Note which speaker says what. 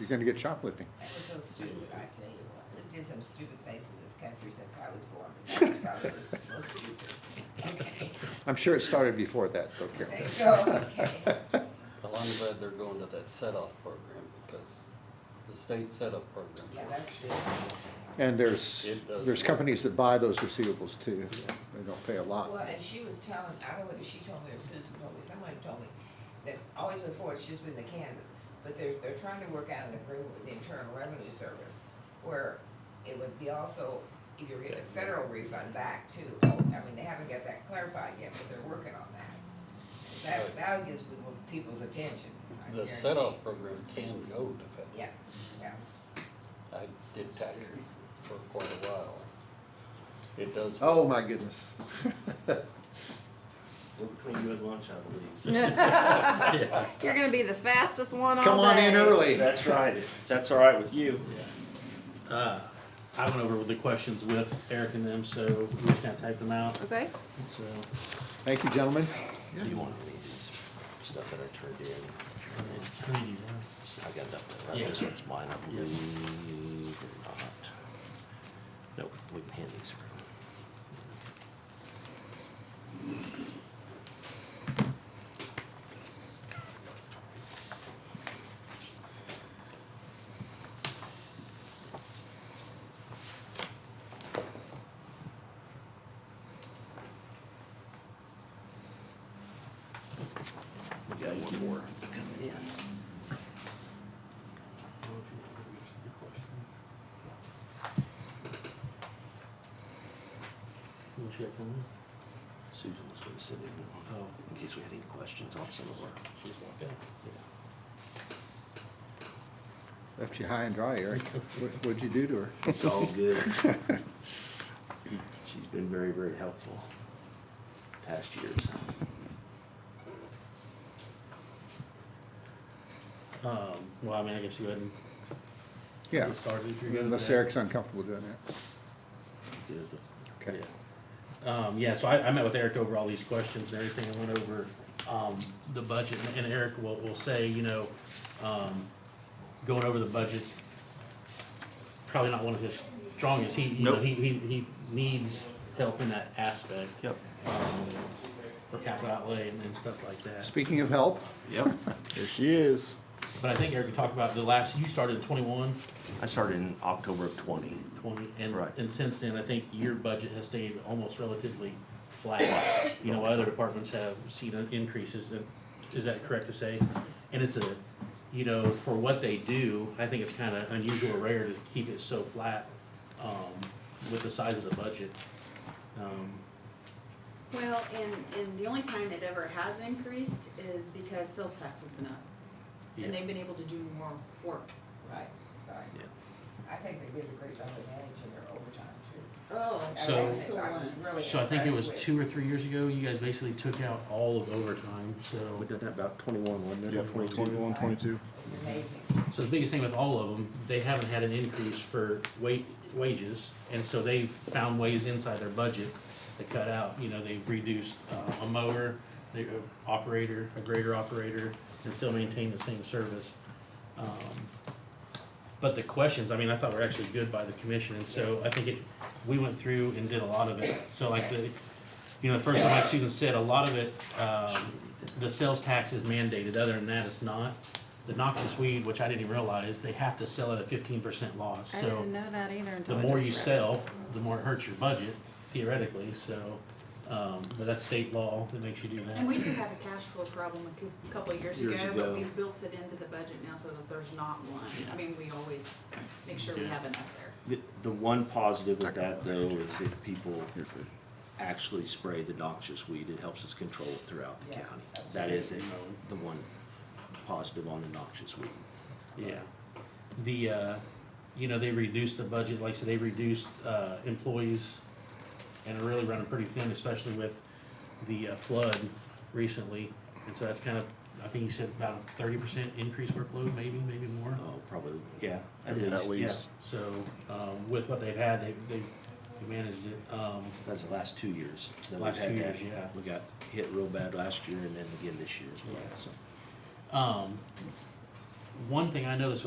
Speaker 1: you're gonna get shoplifting.
Speaker 2: That was so stupid, I tell you what. We've did some stupid things in this country since I was born. but that probably was the most stupid. Okay,
Speaker 1: I'm sure it started before that, though, Carol.
Speaker 2: there you go, okay.
Speaker 3: Well, I'm glad they're going to that set-off program because the state set-off program.
Speaker 2: Yeah, that's good.
Speaker 1: And there's,
Speaker 3: It does.
Speaker 1: there's companies that buy those receivables too. They don't pay a
Speaker 2: Well,
Speaker 1: lot.
Speaker 2: and she was telling, I don't know whether she told me or Susan told me, somebody told me, that always before, it's just been the Kansas, but they're, they're trying to work out an agreement with the Internal Revenue Service, where it would be also, if you're getting a federal refund back too, I mean, they haven't got that clarified yet, but they're working on that. That, that gets people- people's attention, I
Speaker 3: The
Speaker 2: guarantee.
Speaker 3: set-off program can go to federal.
Speaker 2: Yeah, yeah,
Speaker 3: I did taxes for quite a while. It does.
Speaker 1: Oh, my goodness.
Speaker 4: We're between you and lunch, I believe.
Speaker 5: You're gonna be the fastest one all
Speaker 1: Come on in
Speaker 5: day.
Speaker 1: early.
Speaker 4: That's right. If That's all right with you.
Speaker 6: Uh, I went over the questions with Eric and them, so we just kind of typed them out.
Speaker 5: Okay.
Speaker 6: So
Speaker 1: Thank you, gentlemen.
Speaker 4: Do you want any of these stuff that I turned in?
Speaker 6: it's pretty, uh,
Speaker 4: So I got enough, right?
Speaker 6: Yeah.
Speaker 4: This one's mine, I
Speaker 6: Yeah.
Speaker 4: believe, or not. Nope, we can hand these. around. We got one more coming in.
Speaker 6: what you got coming?
Speaker 4: Susan was gonna send in one,
Speaker 6: Oh,
Speaker 4: in case we had any questions on some of our.
Speaker 6: she's walked out.
Speaker 1: Left you high and dry, Eric. What- What'd you do to her?
Speaker 4: It's all good. She's been very, very helpful past years.
Speaker 6: Um, well, I mean, I guess you hadn't.
Speaker 1: Yeah,
Speaker 6: Get started if you're good with
Speaker 1: unless
Speaker 6: that.
Speaker 1: Eric's uncomfortable doing that.
Speaker 4: Good.
Speaker 1: Okay.
Speaker 6: Um, yeah, so I, I met with Eric over all these questions and everything, and went over, um, the budget, and- and Eric will, will say, you know, um, going over the budget's probably not one of his strongest, he, you know,
Speaker 4: Nope.
Speaker 6: he, he, he needs help in that aspect.
Speaker 4: Yep.
Speaker 6: Um, for capital outlay and, and stuff like that.
Speaker 1: Speaking of help,
Speaker 4: Yep.
Speaker 7: There she is.
Speaker 6: But I think Eric talked about the last, you started in twenty-one,
Speaker 4: I started in October of twenty.
Speaker 6: twenty, and,
Speaker 4: Right.
Speaker 6: and since then, I think your budget has stayed almost relatively flat. You know, other departments have seen an increases, and is that correct to say? And it's a, you know, for what they do, I think it's kinda unusual or rare to keep it so flat, um, with the size of the budget. Um,
Speaker 5: Well, and, and the only time it ever has increased is because sales tax has been up.
Speaker 6: Yeah.
Speaker 5: And they've been able to do more work.
Speaker 2: right, right. I think they did a great job of managing their overtime too.
Speaker 5: Oh,
Speaker 6: So-
Speaker 2: I was really
Speaker 6: So I think it was
Speaker 2: impressed with-
Speaker 6: two or three years ago, you guys basically took out all of overtime, so.
Speaker 4: We did that about twenty-one, wasn't it?
Speaker 7: Yeah, 21, 22.
Speaker 2: It was amazing.
Speaker 6: So the biggest thing with all of them, they haven't had an increase for wa- wages, and so they've found ways inside their budget to cut out, you know, they've reduced, uh, a mower, the operator, a grader operator, and still maintain the same service. Um, But the questions, I mean, I thought were actually good by the commission, and so I think it, we went through and did a lot of it, so like the, you know, the first one, like Susan said, a lot of it, um, the sales tax is mandated, other than that, it's not. The noxious weed, which I didn't even realize, they have to sell at a fifteen percent loss, so
Speaker 5: know that either until
Speaker 6: the more you sell, the more it hurts your budget theoretically, so, um, but that's state law that makes you do that.
Speaker 5: And we did have a cash flow problem a cou- couple of years
Speaker 4: Years
Speaker 5: ago,
Speaker 4: ago.
Speaker 5: but we built it into the budget now so that there's not one. I mean, we always make sure we
Speaker 6: Yeah.
Speaker 5: have enough there.
Speaker 4: The, the one positive of that though is if people actually spray the noxious weed, it helps us control it throughout the
Speaker 2: Yeah.
Speaker 4: county. That is it, the one positive on the noxious weed.
Speaker 6: Yeah. The, uh, you know, they reduced the budget, like I said, they reduced, uh, employees and are really running pretty thin, especially with the uh, flood recently. And so that's kind of, I think you said about a thirty percent increase workload, maybe, maybe more.
Speaker 4: Oh, probably, yeah.
Speaker 7: At least.
Speaker 4: yeah.
Speaker 6: So, um, with what they've had, they've, they've managed it. Um,
Speaker 4: That's the last two years. that we've
Speaker 6: Last
Speaker 4: had
Speaker 6: two
Speaker 4: that.
Speaker 6: years, yeah.
Speaker 4: We got hit real bad last year and then again this year as well,
Speaker 6: Yeah.
Speaker 4: so.
Speaker 6: um, one thing I noticed